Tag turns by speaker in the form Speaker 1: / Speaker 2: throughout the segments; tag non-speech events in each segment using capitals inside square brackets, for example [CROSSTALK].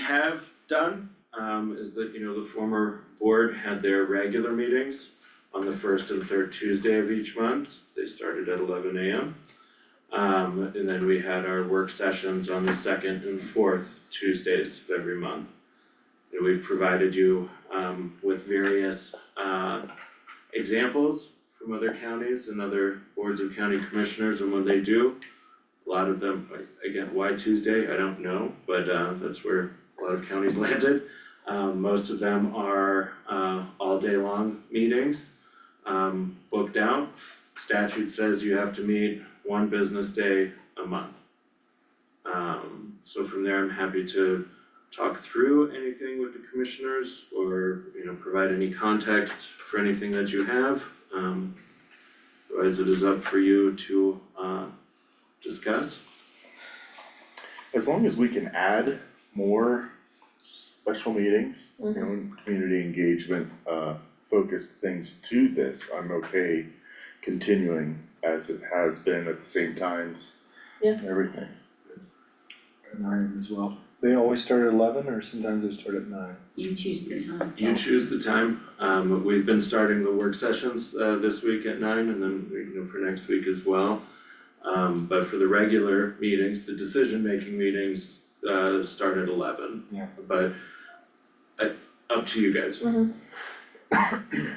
Speaker 1: have done um is that, you know, the former board had their regular meetings on the first and third Tuesday of each month. They started at eleven AM. Um and then we had our work sessions on the second and fourth Tuesdays of every month. And we provided you um with various uh examples from other counties and other boards of county commissioners and what they do. A lot of them, like, again, why Tuesday, I don't know, but uh that's where a lot of counties [LAUGHS] landed. Um most of them are uh all day long meetings, um booked out. Statute says you have to meet one business day a month. Um so from there, I'm happy to talk through anything with the commissioners or, you know, provide any context for anything that you have. Um otherwise it is up for you to uh discuss.
Speaker 2: As long as we can add more special meetings, you know, and community engagement, uh, focused things to this, I'm okay continuing as it has been at the same times.
Speaker 3: Yeah.
Speaker 2: and Everything.
Speaker 4: And I am as well. They always start at eleven or sometimes they start at nine?
Speaker 5: You choose the time.
Speaker 1: You choose the time, um, we've been starting the work sessions, uh, this week at nine and then, you know, for next week as well. Um, but for the regular meetings, the decision-making meetings, uh, start at eleven.
Speaker 4: Yeah.
Speaker 1: But, uh, up to you [LAUGHS] guys.
Speaker 4: Did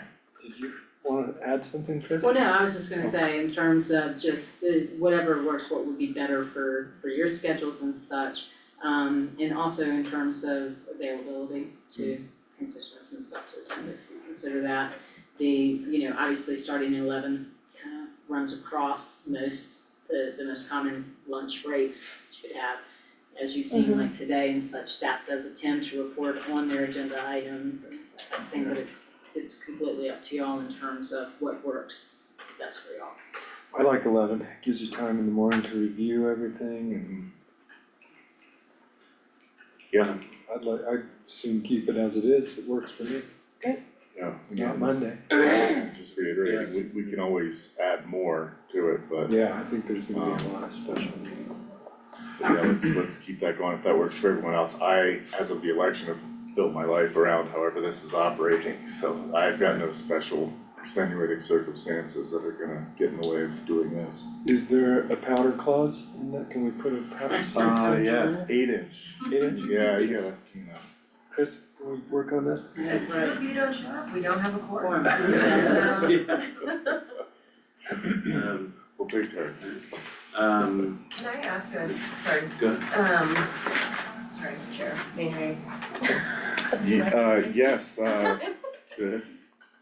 Speaker 4: you wanna add something, Chris?
Speaker 5: Well, no, I was just gonna say in terms of just uh, whatever works, what would be better for for your schedules and such. Um and also in terms of availability to constituents and stuff to attend, if you consider that. The, you know, obviously starting at eleven kind of runs across most, the the most common lunch breaks that you could have. As you've seen
Speaker 3: Mhm.
Speaker 5: like today and such, staff does attempt to report on their agenda items and that kind of thing, but it's it's completely up to y'all in terms of what works best for y'all.
Speaker 4: I like eleven, gives you time in the morning to review everything
Speaker 2: Mm-hmm.
Speaker 4: and
Speaker 2: Yeah,
Speaker 4: I'd like, I'd soon keep it as it is, it works for me,
Speaker 2: yeah.
Speaker 4: it's not Monday.
Speaker 2: Just reiterating, we, we can always add more to it, but
Speaker 4: Yeah, I think there's gonna be a lot of special meetings.
Speaker 2: But yeah, let's, let's keep that going, if that works for everyone else, I, as of the election, have built my life around however this is operating, so I've got no special extenuating circumstances that are gonna get in the way of doing this.
Speaker 4: Is there a powder clause in that, can we put a powder?
Speaker 2: Ah,
Speaker 4: six inch on
Speaker 2: yes, eight inch,
Speaker 4: it? Eight inch,
Speaker 2: yeah, you gotta, you know.
Speaker 4: Chris, can we work on that?
Speaker 6: So if you don't show up, we don't have a
Speaker 5: Quorum.
Speaker 6: quorum.
Speaker 1: Yeah. Um,
Speaker 2: We'll take turns.
Speaker 1: um,
Speaker 6: Can I ask a, sorry,
Speaker 1: go ahead.
Speaker 6: um, sorry, Chair, may
Speaker 2: Ye- uh, yes, uh, the,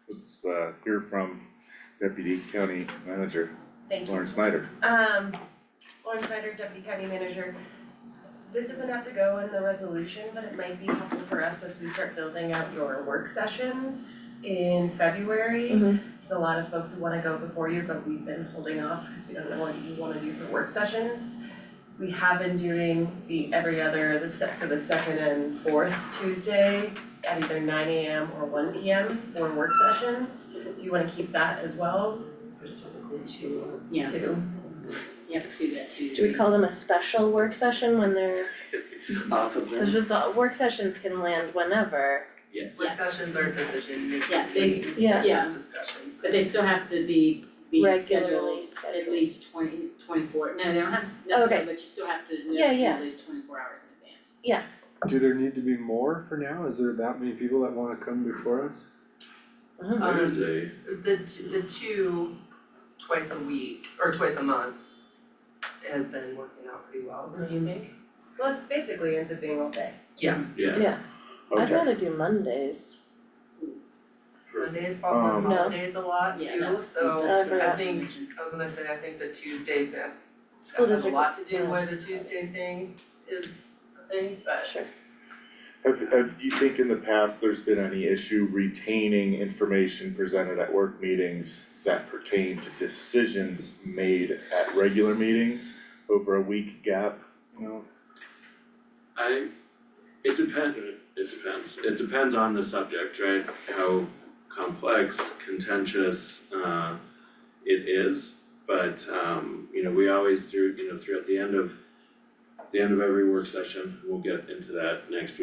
Speaker 2: let's, uh, hear from Deputy County Manager
Speaker 6: I? Thank you.
Speaker 2: Lauren Snyder.
Speaker 6: Um, Lauren Snyder, Deputy County Manager. This doesn't have to go in the resolution, but it might be helpful for us as we start building out your work sessions in February.
Speaker 3: Mhm.
Speaker 6: There's a lot of folks who wanna go before you, but we've been holding off because we don't know what you wanna do for work sessions. We have been doing the every other, the se- so the second and fourth Tuesday at either nine AM or one PM for work sessions. Do you wanna keep that as well? There's typically two,
Speaker 5: Yeah.
Speaker 6: two.
Speaker 5: You have to do that
Speaker 3: Do we
Speaker 5: Tuesday.
Speaker 3: call them a special work session when they're,
Speaker 1: Off of
Speaker 3: so just, uh, work sessions can land whenever.
Speaker 1: Yes.
Speaker 5: Yes.
Speaker 6: Discussions are decision making.
Speaker 5: Yeah, they-
Speaker 6: It's-
Speaker 3: yeah.
Speaker 6: they're Just discussions.
Speaker 5: But they still have to be be scheduled
Speaker 3: Regularly
Speaker 5: at
Speaker 3: scheduled.
Speaker 5: least twenty, twenty-four, no, they don't have to necessarily, but you still have to
Speaker 3: Yeah,
Speaker 5: notice them
Speaker 3: yeah.
Speaker 5: at least twenty-four hours in advance.
Speaker 4: Do there need to be more for now? Is there that many people that wanna come before us?
Speaker 5: Um,
Speaker 1: There is a,
Speaker 7: The t- the two twice a week or twice a month has been working out pretty well, do you think?
Speaker 6: Well, it basically ends up being all day.
Speaker 1: yeah,
Speaker 3: I'd
Speaker 2: Okay,
Speaker 3: rather do Mondays.
Speaker 7: Mondays fall on
Speaker 2: Um,
Speaker 3: No.
Speaker 7: holidays a lot
Speaker 5: Yeah,
Speaker 7: too,
Speaker 5: that's-
Speaker 7: so
Speaker 3: that's what I
Speaker 7: I
Speaker 3: was
Speaker 7: think, I was gonna say, I think the Tuesday, that
Speaker 3: School
Speaker 7: that has a
Speaker 3: district.
Speaker 7: lot to do
Speaker 3: runs
Speaker 7: with the Tuesday thing is a thing, but
Speaker 3: Sure.
Speaker 2: have, have you think in the past there's been any issue retaining information presented at work meetings that pertain to decisions made at regular meetings over a week gap, you know?
Speaker 1: I, it depend, it depends, it depends on the subject, right? How complex, contentious, uh, it is, but, um, you know, we always do, you know, throughout the end of, the end of every work session, we'll get into that next week.